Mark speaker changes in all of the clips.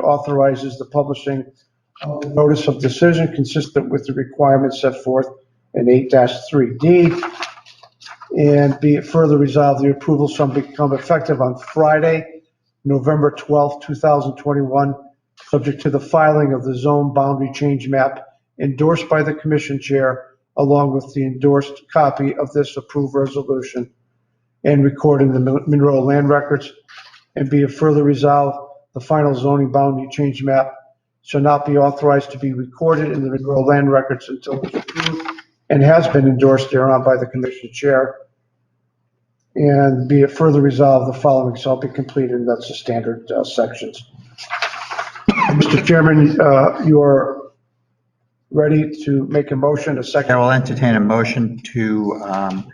Speaker 1: authorizes the publishing of the notice of decision consistent with the requirements set forth in 8-3D. And be it further resolved, the approval shall become effective on Friday, November 12th, 2021, subject to the filing of the zone boundary change map endorsed by the commission chair along with the endorsed copy of this approved resolution and recorded in the Mon- Monroe Land Records. And be it further resolved, the final zoning boundary change map shall not be authorized to be recorded in the Monroe Land Records until it's approved and has been endorsed thereon by the commission chair. And be it further resolved, the following shall be completed, and that's the standard uh, sections. Mr. Chairman, uh, you are ready to make a motion, a
Speaker 2: I
Speaker 1: second?
Speaker 2: will entertain a motion to um,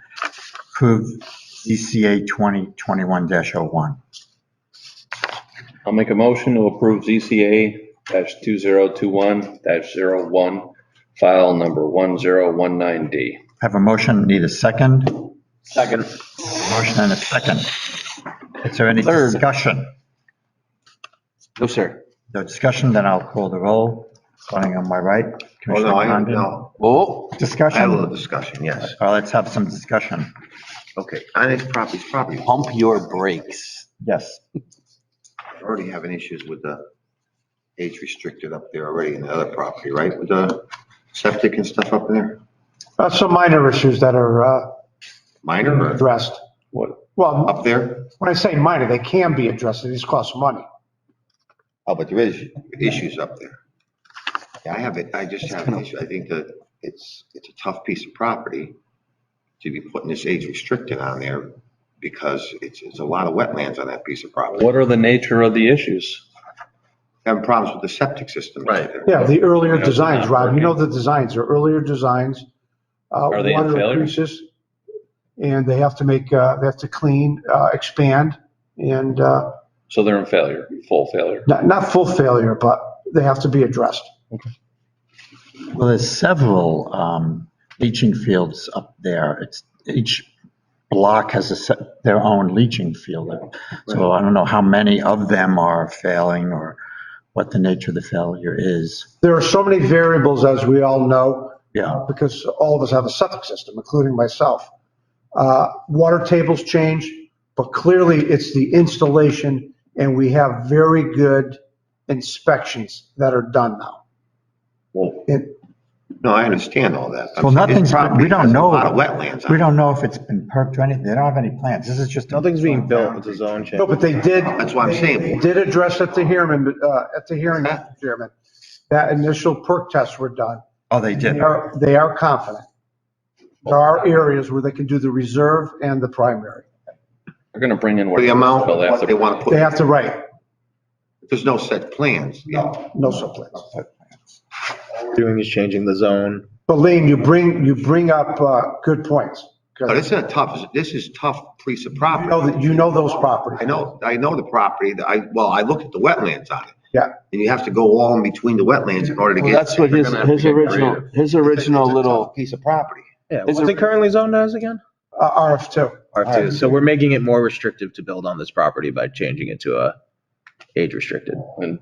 Speaker 2: approve ZCA 2021-01.
Speaker 3: I'll make a motion to approve ZCA dash two zero two one dash zero one, file number one zero one nine D.
Speaker 2: Have a motion, need a second?
Speaker 3: Second.
Speaker 2: Motion and a second. Is there any
Speaker 3: Third.
Speaker 2: discussion?
Speaker 3: No, sir.
Speaker 2: No discussion, then I'll call the roll. Starting on my right,
Speaker 4: Oh,
Speaker 2: Commissioner
Speaker 4: no, I,
Speaker 2: Condon.
Speaker 4: no. Oh, I have a little
Speaker 2: Discussion?
Speaker 4: discussion, yes.
Speaker 2: Well, let's have some discussion.
Speaker 4: Okay, Annex properties, property, I
Speaker 5: pump your brakes.
Speaker 2: Yes.
Speaker 4: already having issues with the age restricted up there already in the other property, right? With the septic and stuff up there,
Speaker 1: Uh, Some minor issues that are uh,
Speaker 4: minor or
Speaker 1: addressed.
Speaker 3: What?
Speaker 1: Well,
Speaker 4: up there?
Speaker 1: when I say minor, they can be addressed, these cost money.
Speaker 4: Oh, but there is issues up there. Yeah, I have it, I just have an issue, I think that it's, it's a tough piece of property to be putting this age restricted on there because it's, it's a lot of wetlands on that piece of property.
Speaker 3: What are the nature of the issues?
Speaker 4: Having problems with the septic system.
Speaker 3: Right.
Speaker 1: Yeah, the earlier
Speaker 3: Yeah,
Speaker 1: designs,
Speaker 3: not
Speaker 1: Rob, you know the
Speaker 3: working.
Speaker 1: designs, they're earlier designs. uh,
Speaker 3: Are they a
Speaker 1: water
Speaker 3: failure?
Speaker 1: increases, And they have to make, uh, they have to clean, uh, expand, and uh,
Speaker 3: So they're in failure, full failure.
Speaker 1: not, not full failure, but they have to be addressed.
Speaker 2: Well, there's several um, leaching fields up there. It's, each block has a, se- their own leaching field. So I don't know how many of them are failing or what the nature of the failure is.
Speaker 1: There are so many variables, as we all know,
Speaker 2: Yeah,
Speaker 1: uh, because all of us have a septic system, including myself. Uh, Water tables change, but clearly it's the installation, and we have very good inspections that are done now.
Speaker 4: Well,
Speaker 1: And-
Speaker 4: No, I understand all that.
Speaker 2: Well, nothing's been- we don't
Speaker 4: There's
Speaker 2: know.
Speaker 4: A lot of wetlands.
Speaker 2: we
Speaker 4: on it.
Speaker 2: don't know if it's been perked or anything. They don't have any plans. This is just.
Speaker 6: Nothing's being built, it's a zone change.
Speaker 1: No, but they did.
Speaker 4: That's what I'm
Speaker 1: They
Speaker 4: saying.
Speaker 1: did address at the hearing, uh, at the hearing, Mr. Chairman, that initial perk tests were done.
Speaker 2: Oh, they
Speaker 1: They
Speaker 2: did.
Speaker 1: are, they are confident. There are areas where they can do the reserve and the primary.
Speaker 3: They're gonna bring in.
Speaker 4: For the amount,
Speaker 3: They'll have
Speaker 4: what they want to
Speaker 1: They
Speaker 4: put,
Speaker 1: have to write,
Speaker 4: there's no set plans.
Speaker 1: no, no subplans.
Speaker 6: What we're Doing is changing the zone.
Speaker 1: But Lean, you bring, you bring up, uh, good points. 'cause
Speaker 4: But this is a tough, this is tough piece of
Speaker 1: You
Speaker 4: property.
Speaker 1: know, that- you know those properties.
Speaker 4: I know, I know the property, that I, well, I looked at the wetlands on it.
Speaker 1: Yeah.
Speaker 4: And you have to go all in between the wetlands in order to
Speaker 5: Well,
Speaker 4: get.
Speaker 5: that's what
Speaker 4: They're
Speaker 5: his,
Speaker 4: gonna have to
Speaker 5: his
Speaker 4: get
Speaker 5: original,
Speaker 4: creative.
Speaker 5: his
Speaker 4: It's a
Speaker 5: original
Speaker 4: tough
Speaker 5: little,
Speaker 4: Piece of property.
Speaker 6: Yeah,
Speaker 5: Is
Speaker 6: what's
Speaker 5: there-
Speaker 6: it currently zoned as again?
Speaker 1: Uh, RF2.
Speaker 6: R2. Um, So we're making it more restrictive to build on this property by changing it to a age restricted.
Speaker 3: And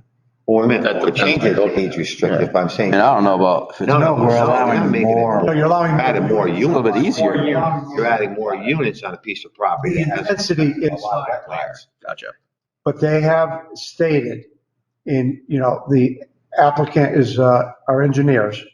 Speaker 4: Well, wait a minute,
Speaker 3: That-
Speaker 4: we're changing
Speaker 3: that's-
Speaker 4: it age restricted, if I'm saying.
Speaker 5: and I don't know about, if it's-
Speaker 4: No,
Speaker 2: No, we're
Speaker 4: so
Speaker 2: allowing
Speaker 4: we're making it-
Speaker 2: more.
Speaker 1: So you're allowing.
Speaker 4: Adding more
Speaker 5: it's a little
Speaker 4: units,
Speaker 5: bit easier.
Speaker 4: you're adding more units on a piece of property.
Speaker 1: The
Speaker 4: that has
Speaker 1: intensity
Speaker 4: a lot of wetlands.
Speaker 6: Gotcha.
Speaker 1: But they have stated in, you know, the applicant is, uh, our engineers.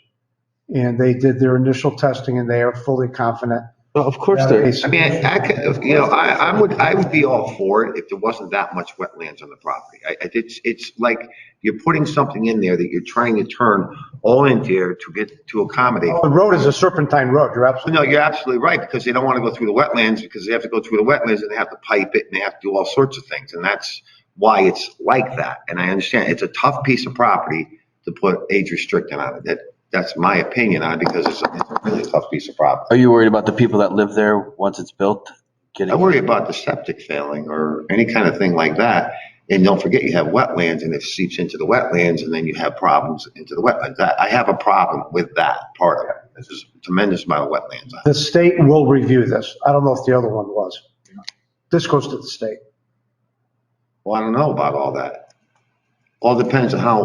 Speaker 1: And they did their initial testing and they are fully confident.
Speaker 5: Well, Of course there is.
Speaker 4: I mean, I I could, you know, I, I would, I would be all for it if there wasn't that much wetlands on the property. I, I, it's, it's like you're putting something in there that you're trying to turn all in there to get, to accommodate.
Speaker 1: The road is a serpentine road. You're absolutely,
Speaker 4: No, you're absolutely right, because they don't want to go through the wetlands, because they have to go through the wetlands and they have to pipe it and they have to do all sorts of things. And that's why it's like that. And I understand, it's a tough piece of property to put age restricting on it. That, that's my opinion on it, because it's a it's a really tough piece of property.
Speaker 5: Are you worried about the people that live there once it's built?
Speaker 4: I
Speaker 5: Getting,
Speaker 4: worry about the septic failing or any kind of thing like that. And don't forget, you have wetlands and it seeps into the wetlands and then you have problems into the wetlands. I, I have a problem with that part of it. There's a tremendous amount of wetlands. on it.
Speaker 1: the state will review this. I don't know if the other one was. This goes to the state.
Speaker 4: Well, I don't know about all that. All depends on how